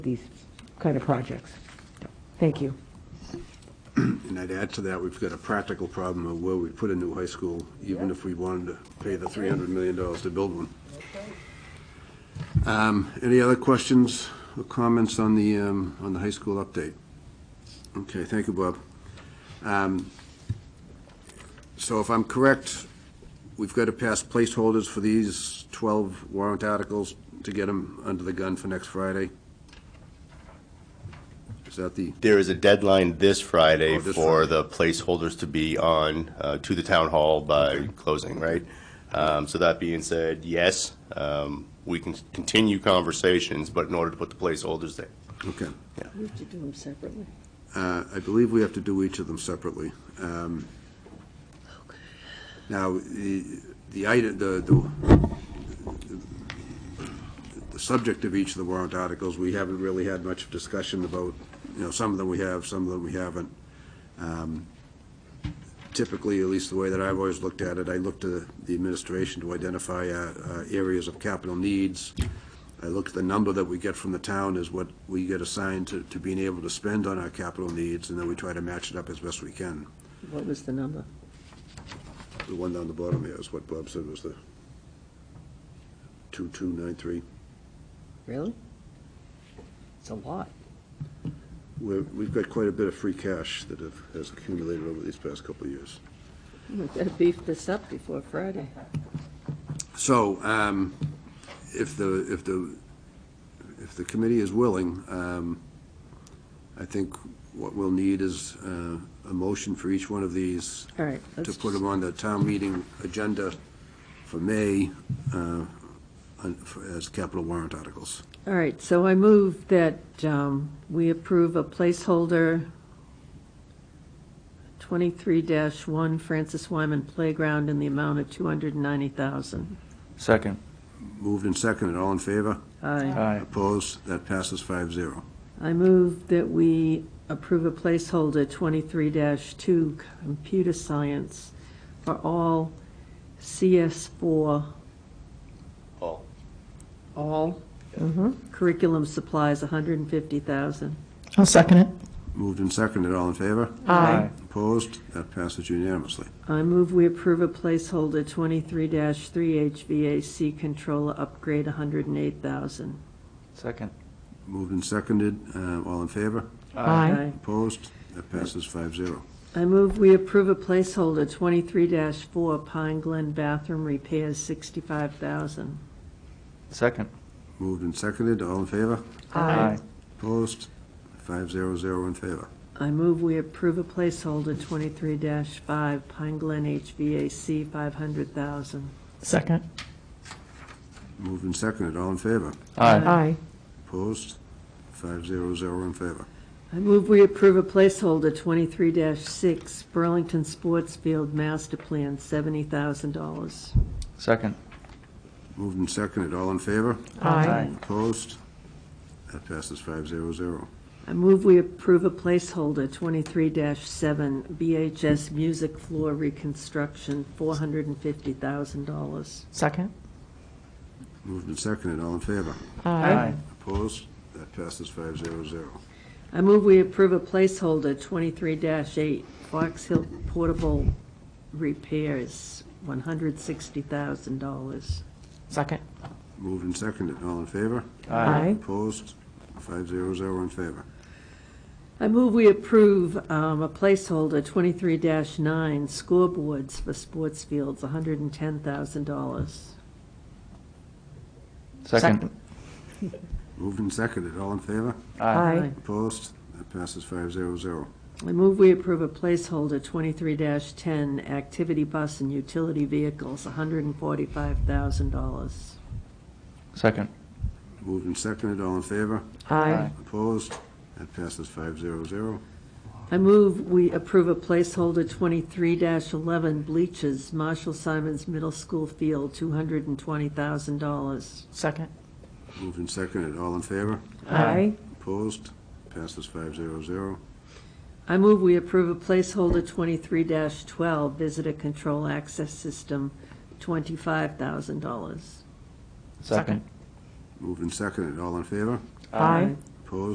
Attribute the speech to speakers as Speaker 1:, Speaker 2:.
Speaker 1: these kind of projects. Thank you.
Speaker 2: And I'd add to that, we've got a practical problem of where we put a new high school, even if we wanted to pay the $300 million to build one. Um, Any other questions or comments on the, um, on the high school update? Okay, thank you, Bob. Um, So if I'm correct, we've got to pass placeholders for these 12 warrant articles to get them under the gun for next Friday? Is that the?
Speaker 3: There is a deadline this Friday
Speaker 2: Oh, this
Speaker 3: for
Speaker 2: Friday.
Speaker 3: the placeholders to be on, uh, to the town hall by closing, right? Um, so that being said, yes, um, we can continue conversations, but in order to put the placeholders there.
Speaker 2: Okay.
Speaker 4: We have to do them separately.
Speaker 2: Uh, I believe we have to do each of them separately. Um, Now, the, the item, the, the, the subject of each of the warrant articles, we haven't really had much discussion about, you know, some of them we have, some of them we haven't. Um, Typically, at least the way that I've always looked at it, I look to the administration to identify uh, uh, areas of capital needs. I look at the number that we get from the town is what we get assigned to, to being able to spend on our capital needs, and then we try to match it up as best we can.
Speaker 4: What was the number?
Speaker 2: The one down the bottom here is what Bob said was the two-two-nine-three.
Speaker 4: Really? It's a lot.
Speaker 2: We're, we've got quite a bit of free cash that have, has accumulated over these past couple of years.
Speaker 4: We better beef this up before Friday.
Speaker 2: So, um, if the, if the, if the committee is willing, um, I think what we'll need is, uh, a motion for each one of these.
Speaker 4: All right,
Speaker 2: To
Speaker 4: let's
Speaker 2: put
Speaker 4: just-
Speaker 2: them on the town meeting agenda for May, uh, on- for- as capital warrant articles.
Speaker 4: All right, so I move that um, we approve a placeholder 23-1 Francis Wyman Playground in the amount of 290,000.
Speaker 5: Second.
Speaker 2: Moved and seconded, all in favor?
Speaker 4: Aye.
Speaker 5: Aye.
Speaker 2: Opposed? That passes five zero.
Speaker 4: I move that we approve a placeholder 23-2 Computer Science for all CS4
Speaker 3: All.
Speaker 4: all curriculum supplies, 150,000.
Speaker 6: I'll second it.
Speaker 2: Moved and seconded, all in favor?
Speaker 5: Aye.
Speaker 2: Opposed? That passes unanimously.
Speaker 4: I move we approve a placeholder 23-3 HVAC controller upgrade, 108,000.
Speaker 5: Second.
Speaker 2: Moved and seconded, uh, all in favor?
Speaker 6: Aye.
Speaker 2: Opposed? That passes five zero.
Speaker 4: I move we approve a placeholder 23-4 Pine Glen bathroom repairs, 65,000.
Speaker 5: Second.
Speaker 2: Moved and seconded, all in favor?
Speaker 5: Aye.
Speaker 2: Opposed? Five zero zero in favor.
Speaker 4: I move we approve a placeholder 23-5 Pine Glen HVAC, 500,000.
Speaker 6: Second.
Speaker 2: Moved and seconded, all in favor?
Speaker 5: Aye.
Speaker 6: Aye.
Speaker 2: Opposed? Five zero zero in favor.
Speaker 4: I move we approve a placeholder 23-6 Burlington Sports Field master plan, $70,000.
Speaker 5: Second.
Speaker 2: Moved and seconded, all in favor?
Speaker 6: Aye.
Speaker 2: Opposed? That passes five zero zero.
Speaker 4: I move we approve a placeholder 23-7 BHS Music Floor Reconstruction, $450,000.
Speaker 6: Second.
Speaker 2: Moved and seconded, all in favor?
Speaker 5: Aye.
Speaker 2: Opposed? That passes five zero zero.
Speaker 4: I move we approve a placeholder 23-8 Fox Hill Portable Repairs, $160,000.
Speaker 6: Second.
Speaker 2: Moved and seconded, all in favor?
Speaker 6: Aye.
Speaker 2: Opposed? Five zero zero in favor.
Speaker 4: I move we approve um, a placeholder 23-9 Scoreboards for Sports Fields, $110,000.
Speaker 5: Second.
Speaker 2: Moved and seconded, all in favor?
Speaker 6: Aye.
Speaker 2: Opposed? That passes five zero zero.
Speaker 4: I move we approve a placeholder twenty-three ten, activity bus and utility vehicles, hundred and forty-five thousand dollars.
Speaker 5: Second.
Speaker 2: Moved and seconded, all in favor?
Speaker 6: Aye.
Speaker 2: Opposed? That passes five zero zero.
Speaker 4: I move we approve a placeholder twenty-three eleven, bleachers, Marshall Simons Middle School Field, two hundred and twenty thousand dollars.
Speaker 6: Second.
Speaker 2: Moved and seconded, all in favor?
Speaker 6: Aye.
Speaker 2: Opposed? Passes five zero zero.
Speaker 4: I move we approve a placeholder twenty-three twelve, visitor control access system, twenty-five thousand dollars.
Speaker 5: Second.
Speaker 2: Moved and seconded, all in favor?
Speaker 6: Aye.